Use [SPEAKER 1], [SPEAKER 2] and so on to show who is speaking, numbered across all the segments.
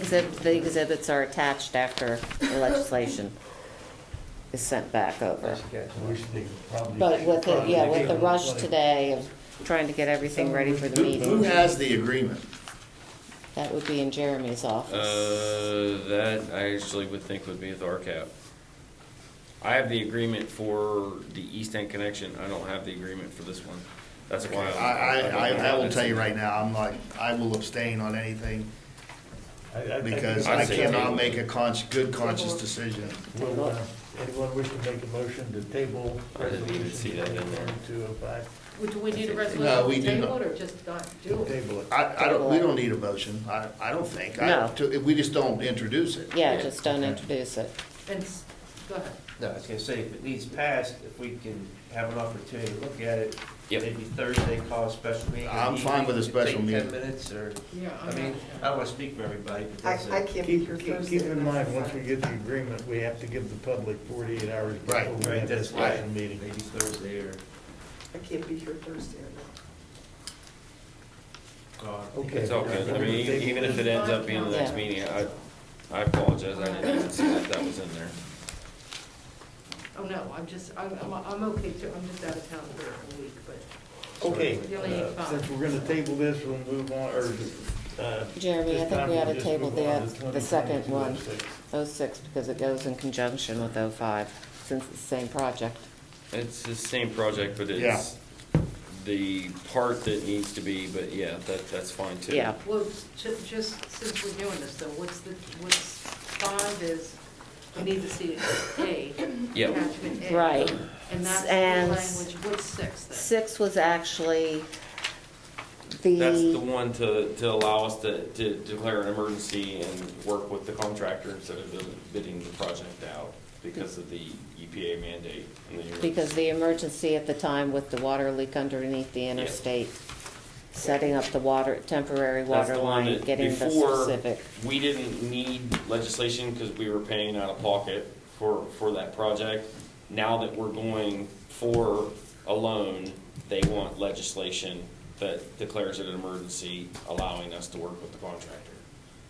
[SPEAKER 1] Exhib- The exhibits are attached after the legislation is sent back over.
[SPEAKER 2] We should be probably-
[SPEAKER 1] But with, the yeah, with the rush
[SPEAKER 2] Probably-
[SPEAKER 1] today of trying to get everything ready for the
[SPEAKER 3] Who who
[SPEAKER 1] meeting,
[SPEAKER 3] has the agreement?
[SPEAKER 1] that would be in Jeremy's office.
[SPEAKER 4] Uh, that I actually would think would be with RCAP. I have the agreement for the East End connection, I don't have the agreement for this one. That's
[SPEAKER 3] I,
[SPEAKER 4] why.
[SPEAKER 3] I,
[SPEAKER 4] don't
[SPEAKER 3] I- I
[SPEAKER 4] have
[SPEAKER 3] will
[SPEAKER 4] this.
[SPEAKER 3] tell you right now, I'm like, I will abstain on anything
[SPEAKER 2] I- I think
[SPEAKER 3] because
[SPEAKER 4] I'd
[SPEAKER 3] I
[SPEAKER 4] say
[SPEAKER 3] cannot
[SPEAKER 4] table.
[SPEAKER 3] make a cons, good conscious decision.
[SPEAKER 2] we'll, uh, Anyone wish to make a motion to table
[SPEAKER 4] I didn't even see that in there.
[SPEAKER 2] resolution two oh five?
[SPEAKER 5] Would- Do we need a
[SPEAKER 3] No, we
[SPEAKER 5] resolution to
[SPEAKER 3] do
[SPEAKER 5] table
[SPEAKER 3] not.
[SPEAKER 5] it or just not do it?
[SPEAKER 2] Table it.
[SPEAKER 3] I, I don't, we don't need a motion, I, I don't think. I-
[SPEAKER 1] No.
[SPEAKER 3] to- We just don't introduce it.
[SPEAKER 1] Yeah, just don't introduce it.
[SPEAKER 5] And, s- go ahead.
[SPEAKER 6] No, I was gonna say, if it needs passed, if we can have an opportunity to look at it,
[SPEAKER 4] Yep.
[SPEAKER 6] maybe Thursday, call a special meeting.
[SPEAKER 3] I'm fine with a
[SPEAKER 6] Take
[SPEAKER 3] special meeting.
[SPEAKER 6] Ten minutes, or,
[SPEAKER 5] Yeah,
[SPEAKER 6] I mean, I don't wanna speak for everybody, but
[SPEAKER 7] I,
[SPEAKER 6] that's
[SPEAKER 7] I
[SPEAKER 6] it.
[SPEAKER 7] can't be here
[SPEAKER 2] Keep, keep
[SPEAKER 7] Thursday.
[SPEAKER 2] keep in mind, once we get the agreement, we have to give the public forty-eight hours
[SPEAKER 3] Right,
[SPEAKER 2] before we
[SPEAKER 6] right,
[SPEAKER 2] have this
[SPEAKER 6] that's right.
[SPEAKER 2] special meeting.
[SPEAKER 6] Maybe Thursday or,
[SPEAKER 7] I can't be here Thursday. I know.
[SPEAKER 6] God.
[SPEAKER 2] Okay.
[SPEAKER 4] It's all good, I mean, e- even if it ends up being the next
[SPEAKER 1] Yeah.
[SPEAKER 4] meeting, I, I apologize, I didn't even see that that was in there.
[SPEAKER 5] Oh, no, I'm just, I'm, I'm, I'm okay too, I'm just out of town for a week, but
[SPEAKER 2] Okay,
[SPEAKER 5] You only need
[SPEAKER 2] uh,
[SPEAKER 5] five.
[SPEAKER 2] since we're gonna table this, we'll move on, or, uh.
[SPEAKER 1] Jeremy, I
[SPEAKER 2] this
[SPEAKER 1] think
[SPEAKER 2] time
[SPEAKER 1] we ought
[SPEAKER 2] we'll
[SPEAKER 1] to
[SPEAKER 2] just
[SPEAKER 1] table
[SPEAKER 2] move on
[SPEAKER 1] the,
[SPEAKER 2] to
[SPEAKER 1] the second
[SPEAKER 2] 2022
[SPEAKER 1] one,
[SPEAKER 2] six.
[SPEAKER 1] 06, because it goes in conjunction with 05, since it's the same project.
[SPEAKER 4] It's the same project, but
[SPEAKER 3] Yeah.
[SPEAKER 4] it's the part that needs to be, but yeah, that, that's fine too.
[SPEAKER 1] Yeah.
[SPEAKER 5] Well, ju- just since we're doing this though, what's the, what's bond is, we need to see it A.
[SPEAKER 4] Yep.
[SPEAKER 5] Attachment A.
[SPEAKER 1] Right.
[SPEAKER 5] And that's the
[SPEAKER 1] And-
[SPEAKER 5] language, what's six then?
[SPEAKER 1] Six was actually
[SPEAKER 4] That's the one to, to allow us to, to declare an emergency and work with the contractor instead of bidding the project out because of the EPA mandate. and the-
[SPEAKER 1] Because the emergency at the time with the water leak underneath the interstate, setting up the water, temporary
[SPEAKER 4] That's
[SPEAKER 1] water
[SPEAKER 4] the one
[SPEAKER 1] line,
[SPEAKER 4] that
[SPEAKER 1] getting the
[SPEAKER 4] before,
[SPEAKER 1] specific.
[SPEAKER 4] We didn't need legislation because we were paying out of pocket for, for that project. Now that we're going for a loan, they want legislation that declares it an emergency, allowing us to work with the contractor.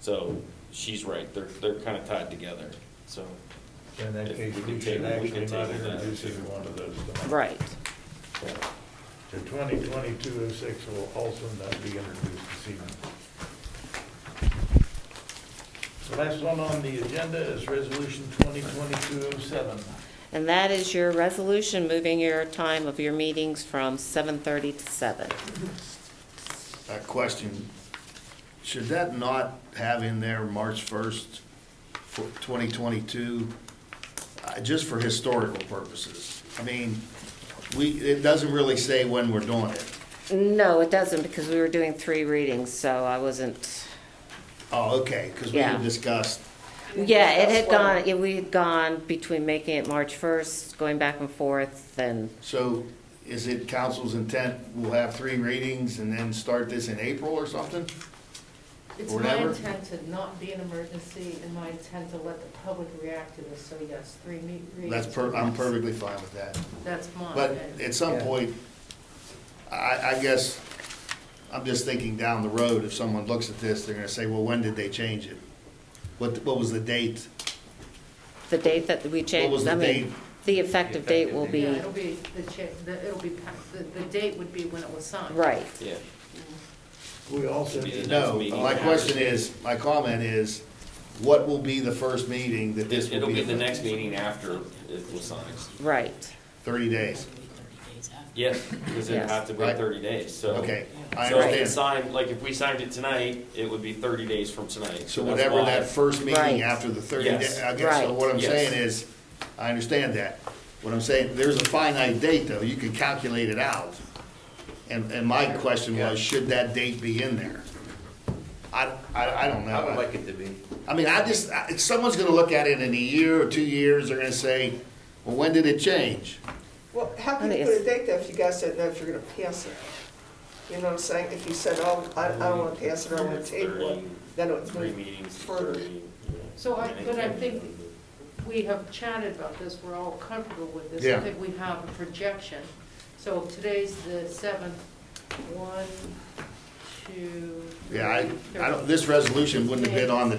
[SPEAKER 4] So she's right, they're, they're kind of tied together, so.
[SPEAKER 2] In that
[SPEAKER 4] If
[SPEAKER 2] case,
[SPEAKER 4] we
[SPEAKER 2] we
[SPEAKER 4] could
[SPEAKER 2] should
[SPEAKER 4] table- we
[SPEAKER 2] actually
[SPEAKER 4] could
[SPEAKER 2] not
[SPEAKER 4] table that.
[SPEAKER 2] introduce either one of those. tonight.
[SPEAKER 1] Right,
[SPEAKER 2] So twenty twenty-two oh six will also not be introduced this evening. The Last one on the agenda is resolution twenty twenty-two oh seven.
[SPEAKER 1] and that is your resolution, moving your time of your meetings from 7:30 to 7.
[SPEAKER 3] A question, should that not have in there March first, twenty twenty-two? uh, Just for historical purposes. I mean, we, it doesn't really say when we're doing it.
[SPEAKER 1] No, it doesn't, because we were doing three readings, so I wasn't,
[SPEAKER 3] Oh, okay, because we
[SPEAKER 1] Yeah.
[SPEAKER 3] had discussed,
[SPEAKER 1] yeah, it had
[SPEAKER 7] That's why-
[SPEAKER 1] gone, yeah, we had gone between making it March 1st, going back and forth, and
[SPEAKER 3] so is it council's intent, we'll have three readings and then start this in April or something?
[SPEAKER 5] It's
[SPEAKER 3] Or
[SPEAKER 5] my
[SPEAKER 3] never.
[SPEAKER 5] intent to not be an emergency and my intent to let the public react to this, so yes, three meet, readings.
[SPEAKER 3] That's per, I'm perfectly fine with that.
[SPEAKER 5] That's mine.
[SPEAKER 3] But
[SPEAKER 5] and-
[SPEAKER 3] at some point, I, I guess, I'm just thinking down the road, if someone looks at this, they're gonna say, well, when did they change it? What, what was the date?
[SPEAKER 1] the date that we
[SPEAKER 3] was
[SPEAKER 1] changed,
[SPEAKER 3] the
[SPEAKER 1] I
[SPEAKER 3] date?
[SPEAKER 1] mean, the effective date will
[SPEAKER 5] Yeah,
[SPEAKER 1] be,
[SPEAKER 5] it'll be, the cha- the, it'll be, pa- the, the date would be when it was signed.
[SPEAKER 1] right.
[SPEAKER 4] Yeah.
[SPEAKER 2] We also,
[SPEAKER 4] Should be the
[SPEAKER 3] No,
[SPEAKER 4] next meeting.
[SPEAKER 3] my question is, my comment is, what will be the first meeting that this will
[SPEAKER 4] It'll
[SPEAKER 3] be?
[SPEAKER 4] be the
[SPEAKER 3] effective?
[SPEAKER 4] next meeting after it was signed.
[SPEAKER 1] Right.
[SPEAKER 3] Thirty days,
[SPEAKER 4] Yes, because it
[SPEAKER 1] Yes.
[SPEAKER 4] have to be
[SPEAKER 3] Right.
[SPEAKER 4] thirty days, so.
[SPEAKER 3] okay, I
[SPEAKER 4] So if it's
[SPEAKER 3] understand.
[SPEAKER 4] signed, like if we signed it tonight, it would be thirty days from tonight.
[SPEAKER 3] So
[SPEAKER 4] that's
[SPEAKER 3] whatever
[SPEAKER 4] why-
[SPEAKER 3] that first
[SPEAKER 1] Right.
[SPEAKER 3] meeting after the thirty
[SPEAKER 4] Yes.
[SPEAKER 3] days, I guess, so
[SPEAKER 1] Right.
[SPEAKER 3] what I'm
[SPEAKER 4] Yes.
[SPEAKER 3] saying is, I understand that. What I'm saying, there's a finite date, though, you can calculate it out. And, and my question was, should that date be in there? I, I, I don't
[SPEAKER 6] I would
[SPEAKER 3] know.
[SPEAKER 6] like it to be.
[SPEAKER 3] I mean, I just, I- someone's gonna look at it in a year or two years, they're gonna say, well, when did it change?
[SPEAKER 7] Well, how can you put a date there if you guys don't know if you're gonna pass it? You know what I'm saying? If you said, oh, I, I don't wanna pass it, I wanna table it, then it's
[SPEAKER 4] Three
[SPEAKER 7] moved
[SPEAKER 4] meetings,
[SPEAKER 7] further.
[SPEAKER 4] thirty.
[SPEAKER 5] So I, but I think we have chatted about this, we're all comfortable with this.
[SPEAKER 3] Yeah.
[SPEAKER 5] I think we have a projection. So if today's the seventh, one, two.
[SPEAKER 3] Yeah, I, I don't,
[SPEAKER 5] three,
[SPEAKER 3] this resolution wouldn't have been on the